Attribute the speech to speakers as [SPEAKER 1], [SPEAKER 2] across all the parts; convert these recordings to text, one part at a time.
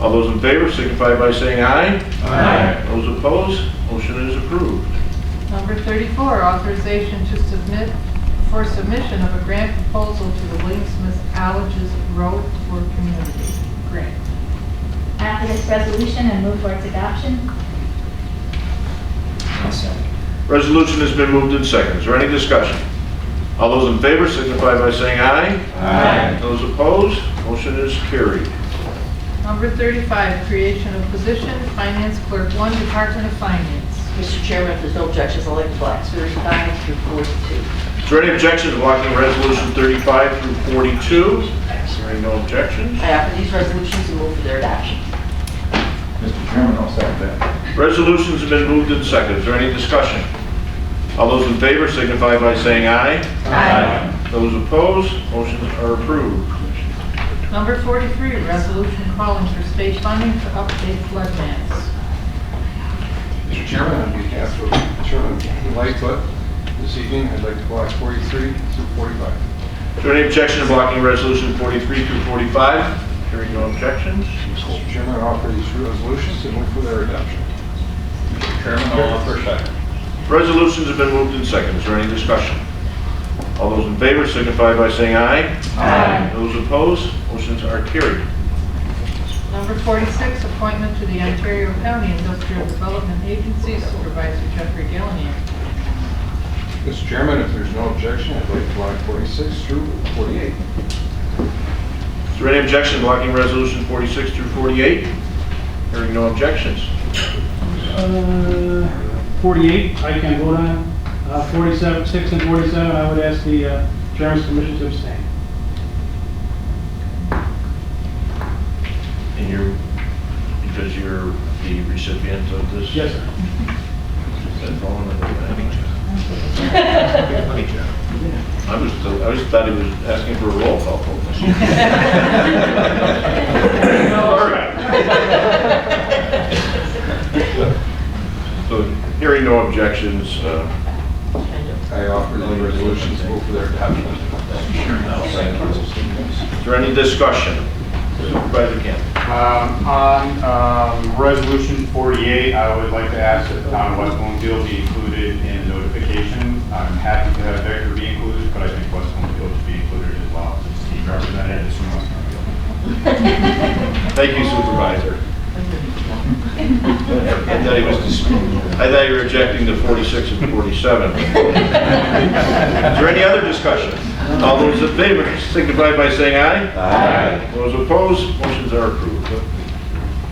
[SPEAKER 1] All those in favor signify by saying aye.
[SPEAKER 2] Aye.
[SPEAKER 1] Those opposed, motion is approved.
[SPEAKER 3] Number 34, authorization to submit, for submission of a grant proposal to the William Smith College's Road to Work Community Grant.
[SPEAKER 4] I offer this resolution and move for its adoption.
[SPEAKER 2] I'll second.
[SPEAKER 1] Resolution has been moved in second. Is there any discussion? All those in favor signify by saying aye.
[SPEAKER 2] Aye.
[SPEAKER 1] Those opposed, motion is carried.
[SPEAKER 3] Number 35, creation of position, Finance Clerk 1, Department of Finance.
[SPEAKER 5] Mr. Chairman, if there's no objections, I'd like to block 35 through 42.
[SPEAKER 1] Is there any objection to blocking Resolution 35 through 42? Hearing no objections.
[SPEAKER 5] I offer these resolutions and move for their adoption.
[SPEAKER 2] Mr. Chairman, I'll second that.
[SPEAKER 1] Resolutions have been moved in second. Is there any discussion? All those in favor signify by saying aye.
[SPEAKER 2] Aye.
[SPEAKER 1] Those opposed, motions are approved.
[SPEAKER 3] Number 43, resolution calling for state funding to update flood maps.
[SPEAKER 6] Mr. Chairman, on behalf of Chairman Lightfoot, this evening, I'd like to block 43 through 45.
[SPEAKER 1] Is there any objection to blocking Resolution 43 through 45? Hearing no objections.
[SPEAKER 6] Mr. Chairman, I offer these resolutions and move for their adoption.
[SPEAKER 2] Mr. Chairman, Oh, I'll offer second.
[SPEAKER 1] Resolutions have been moved in second. Is there any discussion? All those in favor signify by saying aye.
[SPEAKER 2] Aye.
[SPEAKER 1] Those opposed, motions are carried.
[SPEAKER 3] Number 46, appointment to the Ontario County Industrial Development Agency Supervisor Jeffrey Gillian.
[SPEAKER 6] Mr. Chairman, if there's no objection, I'd like to block 46 through 48.
[SPEAKER 1] Is there any objection to blocking Resolution 46 through 48? Hearing no objections.
[SPEAKER 7] Uh, 48, I can vote on. Uh, 47, 6 and 47, I would ask the uh, chairman's permission to abstain.
[SPEAKER 1] And you're, because you're the recipient of this?
[SPEAKER 7] Yes, sir.
[SPEAKER 1] That phone and everything. I was, still- I was thought he was asking for a roll call vote. All right. So hearing no objections, uh,
[SPEAKER 6] I offer these resolutions and move for their adoption.
[SPEAKER 1] is there any discussion? Supervisor Campbell.
[SPEAKER 8] Um, On um, Resolution 48, I would like to ask that the town of West Bloomfield be included in notification. I'm happy to have Victor be included, but I think West Bloomfield should be included as well, since he represented us from West Bloomfield.
[SPEAKER 1] Thank you Supervisor. I thought he was, dis- I thought you were rejecting the 46 and 47. Is there any other discussion? All those in favor signify by saying aye.
[SPEAKER 2] Aye.
[SPEAKER 1] Those opposed, motions are approved.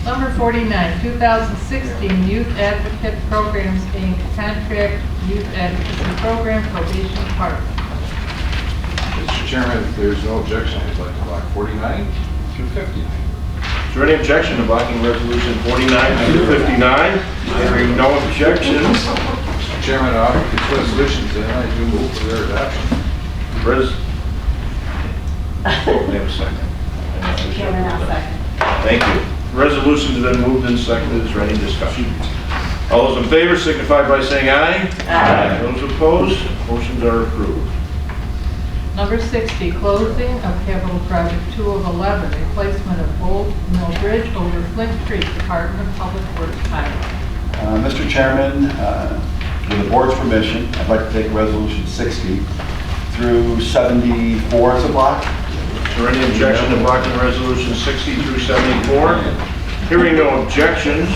[SPEAKER 3] Number 49, 2016 Youth Advocate Programs, Inc., Contract Youth Advocacy Program Probation Department.
[SPEAKER 6] Mr. Chairman, if there's no objection, I'd like to block 49 through 59.
[SPEAKER 1] Is there any objection to blocking resolution 49 through 59? Hearing no objections,
[SPEAKER 6] Mr. Chairman, I offer these resolutions and I do move for their adoption.
[SPEAKER 1] res... Wait a second.
[SPEAKER 4] Chairman, I'll second.
[SPEAKER 1] Thank you. Resolution's been moved and seconded, is there any discussion? All those in favor signify by saying aye.
[SPEAKER 2] Aye.
[SPEAKER 1] Those opposed, motions are approved.
[SPEAKER 3] Number 60, closing of Capital Project 2 of 11, replacement of Old Mill Bridge over Flint Creek, Department of Public Works Highway.
[SPEAKER 9] Uh, Mr. Chairman, uh, with the board's permission, I'd like to take Resolution 60 through 74 as a block.
[SPEAKER 1] Is there any objection to blocking resolution 60 through 74? Hearing no objections,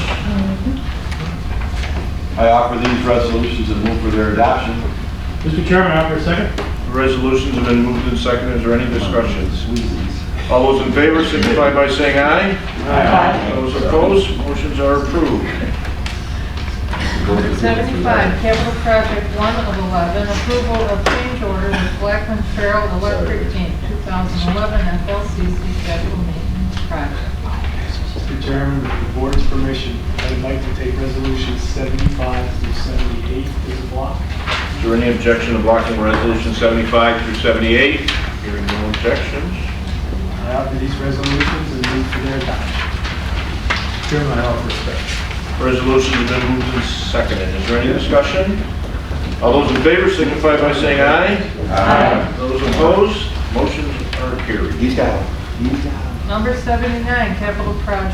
[SPEAKER 9] I offer these resolutions and move for their adoption.
[SPEAKER 7] Mr. Chairman, I offer a second.
[SPEAKER 1] resolutions have been moved and seconded, is there any discussions? All those in favor signify by saying aye. Those opposed, motions are approved.
[SPEAKER 3] Number 75, Capital Project 1 of 11, approval of change order with Blackman Farrell Electric Inc., 2011 FLCC Capital Maintenance Project.
[SPEAKER 10] Mr. Chairman, with the board's permission, I'd like to take resolutions 75 through 78 as a block.
[SPEAKER 1] Is there any objection to blocking resolution 75 through 78? Hearing no objections.
[SPEAKER 10] I offer these resolutions and move for their adoption.
[SPEAKER 6] Chairman, I offer second.
[SPEAKER 1] Resolution has been moved and seconded. Is there any discussion? All those in favor signify by saying aye. Aye. Those opposed, motions are carried.
[SPEAKER 9] He's got it. He's got it.
[SPEAKER 3] Number 79, Capital Project